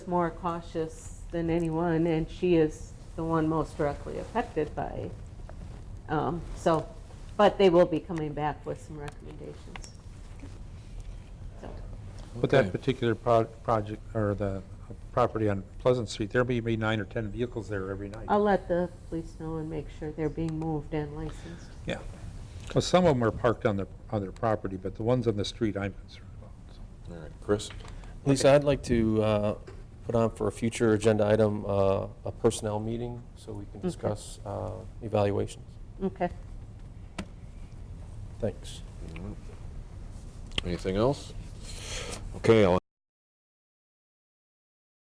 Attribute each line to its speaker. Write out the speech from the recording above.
Speaker 1: more cautious than anyone, and she is the one most directly affected by, um, so, but they will be coming back with some recommendations. So,
Speaker 2: With that particular pro- project, or the property on Pleasant Street, there may be nine or 10 vehicles there every night.
Speaker 1: I'll let the police know and make sure they're being moved and licensed.
Speaker 2: Yeah. Well, some of them are parked on their, on their property, but the ones on the street I'm concerned about. so.
Speaker 3: All right, Chris?
Speaker 4: Lisa, I'd like to uh, put on for a future agenda item, uh, a personnel meeting, so we can discuss uh, evaluations.
Speaker 1: Okay.
Speaker 4: Thanks.
Speaker 3: Anything else? Okay, I'll